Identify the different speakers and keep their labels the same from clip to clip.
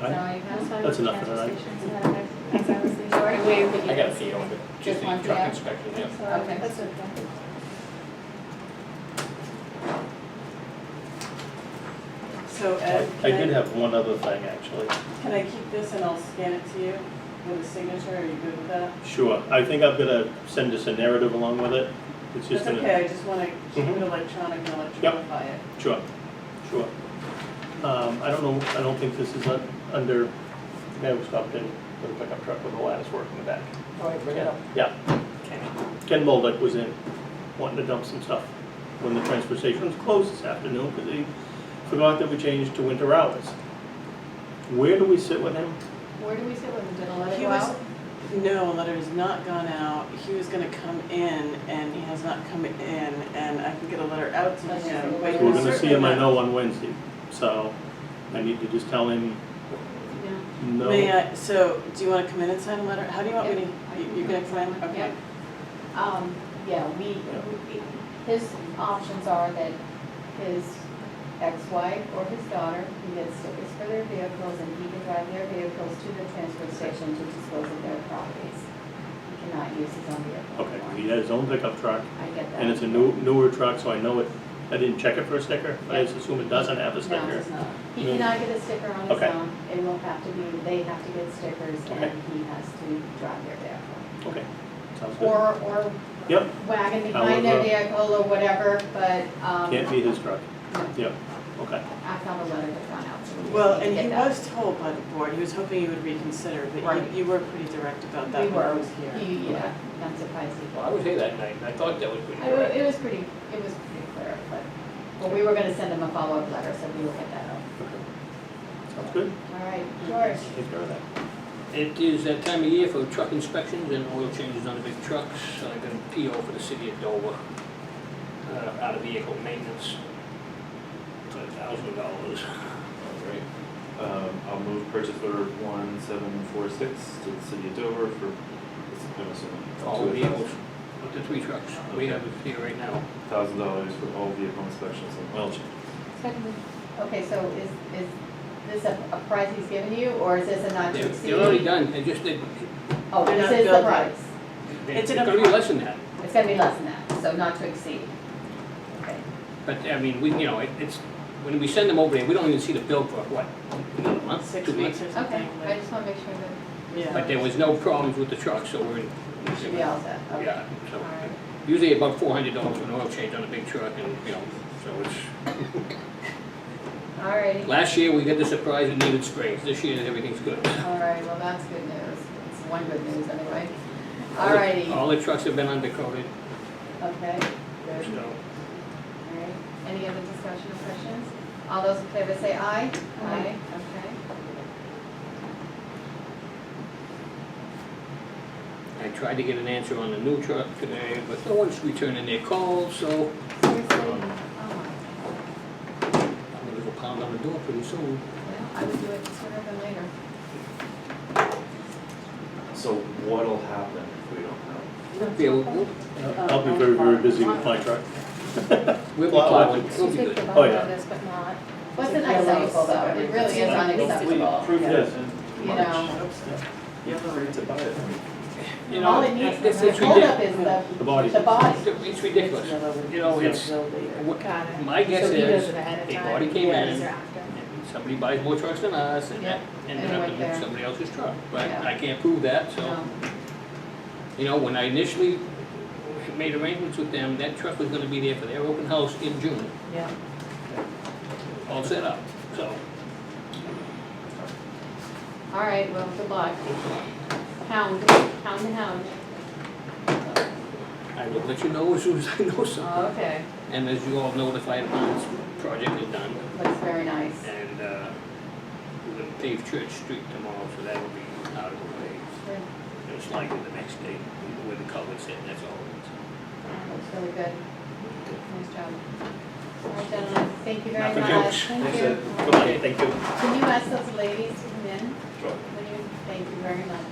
Speaker 1: Right. That's enough for tonight.
Speaker 2: I got a fee on it, just
Speaker 3: Just one
Speaker 2: the
Speaker 3: fee,
Speaker 2: truck
Speaker 3: yeah.
Speaker 2: inspection, yeah.
Speaker 3: Okay.
Speaker 1: Oh,
Speaker 4: That's okay.
Speaker 5: So
Speaker 1: I
Speaker 5: Ed,
Speaker 1: I
Speaker 5: can
Speaker 1: did
Speaker 5: I,
Speaker 1: have one other thing, actually.
Speaker 5: can I keep this and I'll scan it to you with a signature, are you good with that?
Speaker 1: Sure, I think I'm gonna send us a narrative along with it. It's just
Speaker 5: That's
Speaker 1: gonna.
Speaker 5: okay, I just wanna keep
Speaker 1: Mhm.
Speaker 5: it electronic and electronify it.
Speaker 1: Sure, sure. Um, I don't know, I don't think this is un- under, man, we stopped in with a pickup truck with a lattice work in the back.
Speaker 2: All right, bring
Speaker 1: Yeah. Ken Moldick was in, wanting to dump some stuff when the transfer station was closed this afternoon, because he forgot that we changed to winter hours. Where do we sit with him?
Speaker 3: Where do we sit with the dental?
Speaker 5: He was, no, a letter has not gone out, he was gonna come in and he has not come in and I can get a letter out to
Speaker 3: Let's just
Speaker 5: him,
Speaker 3: see
Speaker 5: but
Speaker 3: what
Speaker 1: We're
Speaker 5: you're
Speaker 1: gonna see
Speaker 5: certainly
Speaker 1: him, I
Speaker 5: not-
Speaker 1: know, on Wednesday, so I need to just tell him, no.
Speaker 5: May I, so, do you wanna come in and sign a letter, how do you want me to, you- you're gonna come in, okay?
Speaker 3: Um, yeah, we,
Speaker 4: His options are that his ex-wife or his daughter can get stickers for their vehicles and he can drive their vehicles to the transfer station to dispose of their properties. He cannot use his own vehicle.
Speaker 1: Okay,
Speaker 4: anymore.
Speaker 1: he had his own pickup truck,
Speaker 4: I get that.
Speaker 1: and it's a new, newer truck, so I know it, I didn't check it for a sticker, but I just assume it doesn't have a
Speaker 4: No,
Speaker 1: sticker.
Speaker 4: it's not. He
Speaker 1: No.
Speaker 4: cannot get a sticker on his
Speaker 1: Okay.
Speaker 4: own. It will have to be, they have to get stickers
Speaker 1: Okay.
Speaker 4: and he has to drive their vehicle.
Speaker 1: Okay, sounds good.
Speaker 4: or, or
Speaker 1: Yep.
Speaker 4: wagon behind
Speaker 1: However.
Speaker 4: their vehicle or whatever, but, um.
Speaker 1: Can't be his truck,
Speaker 4: no,
Speaker 1: yep, okay.
Speaker 4: I found a letter that gone out, so we just
Speaker 5: Well,
Speaker 4: need to
Speaker 5: and
Speaker 4: get
Speaker 5: he
Speaker 4: that.
Speaker 5: was told by the board, he was hoping you would reconsider, but
Speaker 4: Right.
Speaker 5: you, you were pretty direct about that
Speaker 4: We
Speaker 5: when I
Speaker 4: were,
Speaker 5: was here.
Speaker 4: he, yeah, not surprised he.
Speaker 2: Well, I was here that night, and I thought that was pretty
Speaker 4: I wa-
Speaker 2: correct.
Speaker 4: It was pretty, it was pretty clear, but, well, we were gonna send him a follow-up letter, so we will get that out.
Speaker 1: Sounds good.
Speaker 4: All right, George,
Speaker 1: Take care of that.
Speaker 2: It is that time of year for truck inspections and oil changes on the big trucks, so I got a PO for the city of Dover, uh, out of vehicle maintenance, for thousand dollars.
Speaker 6: All right, um, I'll move purchase order one seven four six to the city of Dover for, I'm assuming.
Speaker 2: All vehicles, up to three trucks, we have it here right now.
Speaker 6: Thousand dollars for all vehicle inspections and oil change.
Speaker 4: okay, so is, is this a, a price he's given you, or is this a not to
Speaker 2: They're,
Speaker 4: exceed?
Speaker 2: they're already done, they just, they,
Speaker 4: Oh,
Speaker 5: They're
Speaker 4: this is
Speaker 5: not
Speaker 4: the
Speaker 5: built yet.
Speaker 4: price,
Speaker 5: It's
Speaker 2: it's
Speaker 5: an
Speaker 2: gonna be less than that.
Speaker 4: it's gonna be less than that, so not to exceed. Okay,
Speaker 2: But, I mean, we, you know, it- it's, when we send them over there, we don't even see the bill for, what, another month,
Speaker 5: Six
Speaker 2: two
Speaker 5: months
Speaker 2: weeks?
Speaker 5: or something.
Speaker 4: okay, I just wanna make sure that.
Speaker 5: Yeah.
Speaker 2: But there was no problems with the truck, so we're in.
Speaker 4: We should be all set, okay.
Speaker 2: Yeah,
Speaker 4: All
Speaker 2: so,
Speaker 4: right.
Speaker 2: usually about four hundred dollars for an oil change on a big truck, and, you know, so it's,
Speaker 4: All righty,
Speaker 2: last year, we got the surprise it needed springs, this year, everything's good.
Speaker 4: all right, well, that's good news. It's one good news anyway. All righty,
Speaker 2: All the trucks have been undercoated,
Speaker 4: okay,
Speaker 2: so,
Speaker 4: good, all right. Any other discussion or questions? All those in favor say aye? Aye. Okay.
Speaker 2: I tried to get an answer on the new truck today, but no one's returning their calls, so
Speaker 4: Seriously?
Speaker 6: Um,
Speaker 4: Oh,
Speaker 2: I'm gonna go pound on the door pretty soon.
Speaker 4: my. Oh, Well, I would do it sooner than later.
Speaker 6: So what'll happen if we don't have?
Speaker 2: We'll, we'll-
Speaker 1: I'll be very, very busy with my truck.
Speaker 2: we'll be
Speaker 1: Well, I-
Speaker 2: plowing, we'll be good.
Speaker 1: Oh, yeah.
Speaker 7: but not.
Speaker 4: Wasn't unacceptable though, it really is unacceptable,
Speaker 6: Prove
Speaker 5: Yes.
Speaker 4: you know.
Speaker 6: You have the right to buy it.
Speaker 2: You
Speaker 4: All
Speaker 2: know,
Speaker 4: it needs,
Speaker 2: it's,
Speaker 4: the
Speaker 2: it's
Speaker 4: holdup
Speaker 2: ridiculous.
Speaker 4: is the,
Speaker 1: The body.
Speaker 4: the body.
Speaker 2: It's ridiculous. You know, it's- What-
Speaker 7: Got it.
Speaker 2: My guess
Speaker 7: So he does
Speaker 2: is,
Speaker 7: it ahead of
Speaker 2: they
Speaker 7: time.
Speaker 2: already came
Speaker 7: Yeah,
Speaker 2: in.
Speaker 7: these are after.
Speaker 2: and somebody buys more trucks than us, and that ended
Speaker 4: and it
Speaker 2: up
Speaker 4: went there.
Speaker 2: in somebody else's truck. But
Speaker 4: Yeah.
Speaker 2: I can't prove that, so,
Speaker 4: No.
Speaker 2: you know, when I initially made arrangements with them, that truck was gonna be there for their open house in June,
Speaker 7: Yeah.
Speaker 2: all set up, so.
Speaker 4: All right, well, good luck. Hound, hound to hound.
Speaker 2: I will let you know as soon as I know something.
Speaker 4: Oh, okay,
Speaker 2: And as you all know, the fire department's project is done,
Speaker 4: looks very nice.
Speaker 2: and, uh, we're gonna pave Church Street tomorrow, so that'll be out of the way.
Speaker 4: Good.
Speaker 2: It's like the next day, where the culvert's in, that's all.
Speaker 4: Looks really good. Nice job. All right, gentlemen, thank you very
Speaker 2: Not for
Speaker 4: much.
Speaker 2: jokes.
Speaker 4: Thank
Speaker 6: Thanks,
Speaker 4: you.
Speaker 6: Ed.
Speaker 1: Goodbye, thank you.
Speaker 4: Can you ask those ladies to come in?
Speaker 6: Sure.
Speaker 4: Would you? Thank you very much.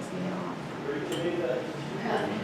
Speaker 4: Takes me off.